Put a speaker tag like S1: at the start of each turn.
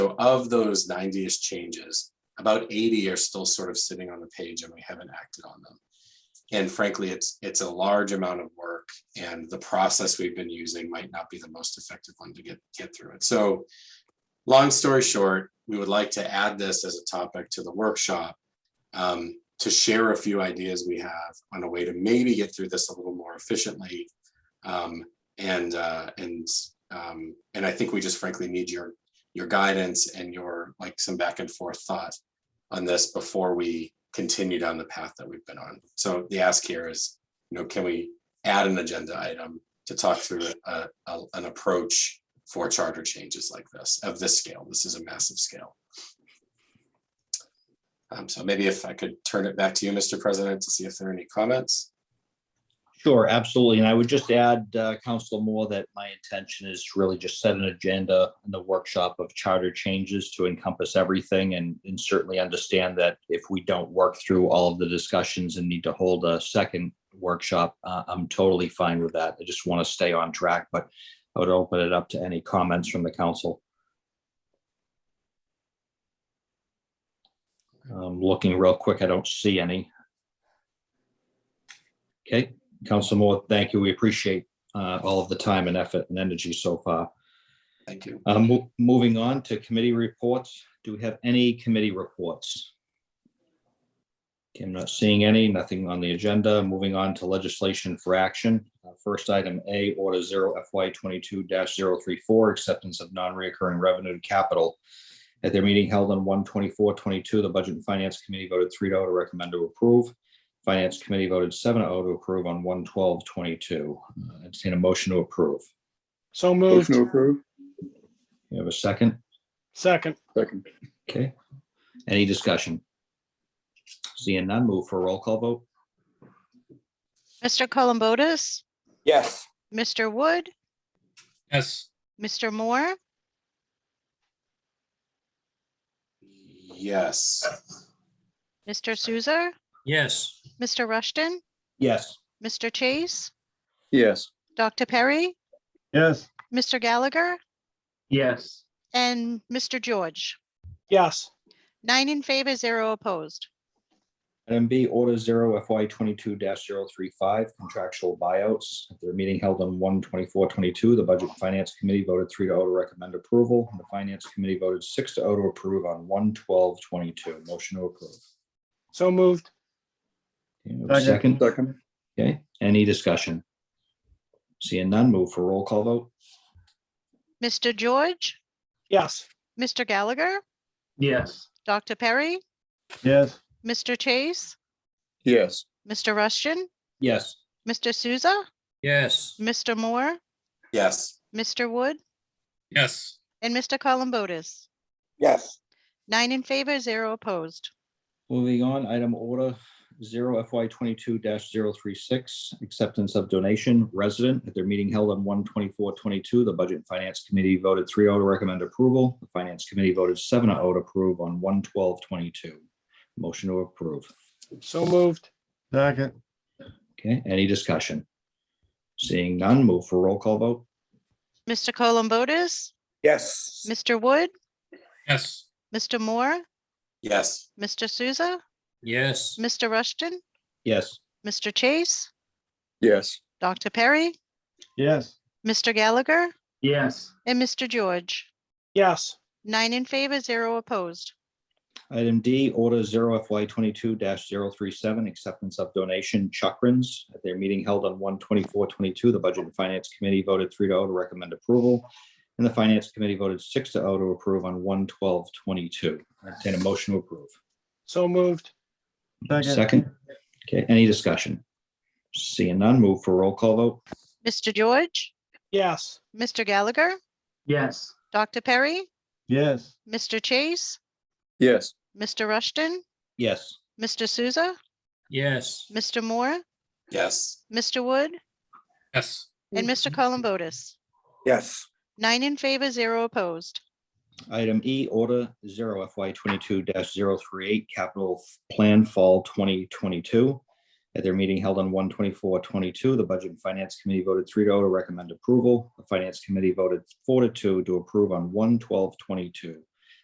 S1: So of those 90-ish changes, about 80 are still sort of sitting on the page and we haven't acted on them. And frankly, it's, it's a large amount of work and the process we've been using might not be the most effective one to get, get through it. So long story short, we would like to add this as a topic to the workshop um, to share a few ideas we have on a way to maybe get through this a little more efficiently. Um, and, uh, and, um, and I think we just frankly need your, your guidance and your like some back and forth thought on this before we continue down the path that we've been on. So the ask here is, you know, can we add an agenda item to talk through a, a- an approach for charter changes like this of this scale? This is a massive scale. Um, so maybe if I could turn it back to you, Mr. President, to see if there are any comments.
S2: Sure, absolutely. And I would just add, uh, Counselor Moore, that my intention is to really just set an agenda in the workshop of charter changes to encompass everything and, and certainly understand that if we don't work through all of the discussions and need to hold a second workshop, uh, I'm totally fine with that. I just want to stay on track, but I would open it up to any comments from the council. Um, looking real quick, I don't see any. Okay, Council Moore, thank you. We appreciate uh, all of the time and effort and energy so far.
S1: Thank you.
S2: Uh, mo- Moving on to committee reports. Do we have any committee reports? Okay, I'm not seeing any, nothing on the agenda. Moving on to legislation for action. Uh, First item A, Order 0 FY 22-034, acceptance of non-recurring revenue to capital. At their meeting held on 124-22, the Budget and Finance Committee voted 3-0 to recommend to approve. Finance Committee voted 7-0 to approve on 112-22. Uh, Entertain a motion to approve.
S3: So
S4: Motion
S3: moved.
S4: to approve.
S2: You have a second?
S3: Second.
S4: Second.
S2: Okay, any discussion? Seeing none, move for a roll call vote.
S5: Mr. Columbotus,
S6: Yes.
S5: Mr. Wood,
S6: Yes.
S5: Mr. Moore,
S1: Yes.
S5: Mr. Souza,
S6: Yes.
S5: Mr. Rushton,
S2: Yes.
S5: Mr. Chase,
S4: Yes.
S5: Dr. Perry,
S3: Yes.
S5: Mr. Gallagher,
S3: Yes.
S5: and Mr. George.
S3: Yes.
S5: Nine in favor, zero opposed.
S2: Item B, Order Zero FY twenty-two 35 contractual buyouts. At their meeting held on 124-22, the Budget and Finance Committee voted three to O to recommend approval. and The Finance Committee voted six to O to approve on 112-22. Motion to approve.
S3: So moved.
S2: Okay, we have a Second,
S4: Second.
S2: okay, any discussion? Seeing none, move for a roll call vote.
S5: Mr. George,
S3: Yes.
S5: Mr. Gallagher,
S3: Yes.
S5: Dr. Perry,
S3: Yes.
S5: Mr. Chase,
S4: Yes.
S5: Mr. Rushton,
S2: Yes.
S5: Mr. Souza,
S6: Yes.
S5: Mr. Moore,
S1: Yes.
S5: Mr. Wood,
S6: Yes.
S5: and Mr. Columbotus.
S6: Yes.
S5: Nine in favor, zero opposed.
S2: Moving on, item order zero FY twenty-two 36 acceptance of donation resident. At their meeting held on 124-22, the Budget and Finance Committee voted 3-0 to recommend approval. The Finance Committee voted 7-0 to approve on 112-22. Motion to approve.
S3: So moved. Second.
S2: Okay, any discussion? Seeing none, move for roll call vote.
S5: Mr. Columbotus,
S6: Yes.
S5: Mr. Wood,
S6: Yes.
S5: Mr. Moore,
S1: Yes.
S5: Mr. Souza,
S6: Yes.
S5: Mr. Rushton,
S2: Yes.
S5: Mr. Chase,
S4: Yes.
S5: Dr. Perry,
S3: Yes.
S5: Mr. Gallagher,
S3: Yes.
S5: and Mr. George.
S3: Yes.
S5: Nine in favor, zero opposed.
S2: Item D, Order Zero FY twenty-two 37 acceptance of donation Chakrins. At their meeting held on 124-22, the Budget and Finance Committee voted three to O to recommend approval. And the Finance Committee voted six to O to approve on 112-22. Entertain a motion to approve.
S3: So moved.
S2: Second. Okay, any discussion? Seeing none, move for roll call vote.
S5: Mr. George,
S3: Yes.
S5: Mr. Gallagher,
S3: Yes.
S5: Dr. Perry,
S3: Yes.
S5: Mr. Chase,
S4: Yes.
S5: Mr. Rushton,
S2: Yes.
S5: Mr. Souza,
S6: Yes.
S5: Mr. Moore,
S1: Yes.
S5: Mr. Wood,
S6: Yes.
S5: and Mr. Columbotus.
S6: Yes.
S5: Nine in favor, zero opposed.
S2: Item E, Order Zero FY twenty-two 38 Capital Plan Fall twenty twenty-two. At their meeting held on 124-22, the Budget and Finance Committee voted three oh to O to recommend approval. The Finance Committee voted four to two to approve on 112-22.